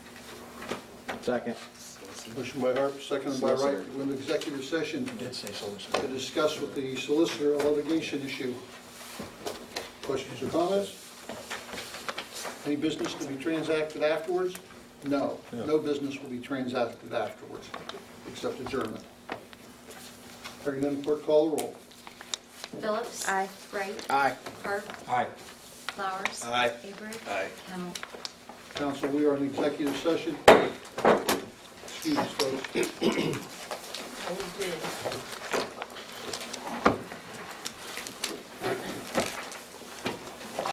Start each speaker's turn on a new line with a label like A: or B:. A: Second.
B: Motion by Harp, seconded by Wright, to go into executive session
C: Did say
B: to discuss with the solicitor a litigation issue. Questions or comments? Any business to be transacted afterwards? No, no business will be transacted afterwards, except adjournment. Hearing none, clerk call the roll.
D: Phillips.
E: Aye.
D: Wright.
A: Aye.
D: Harp.
C: Aye.
D: Flowers.
A: Aye.
D: Avery.
A: Aye.
D: Hamel.
B: Council, we are in executive session. Excuse us, folks.
D: Oh, we did.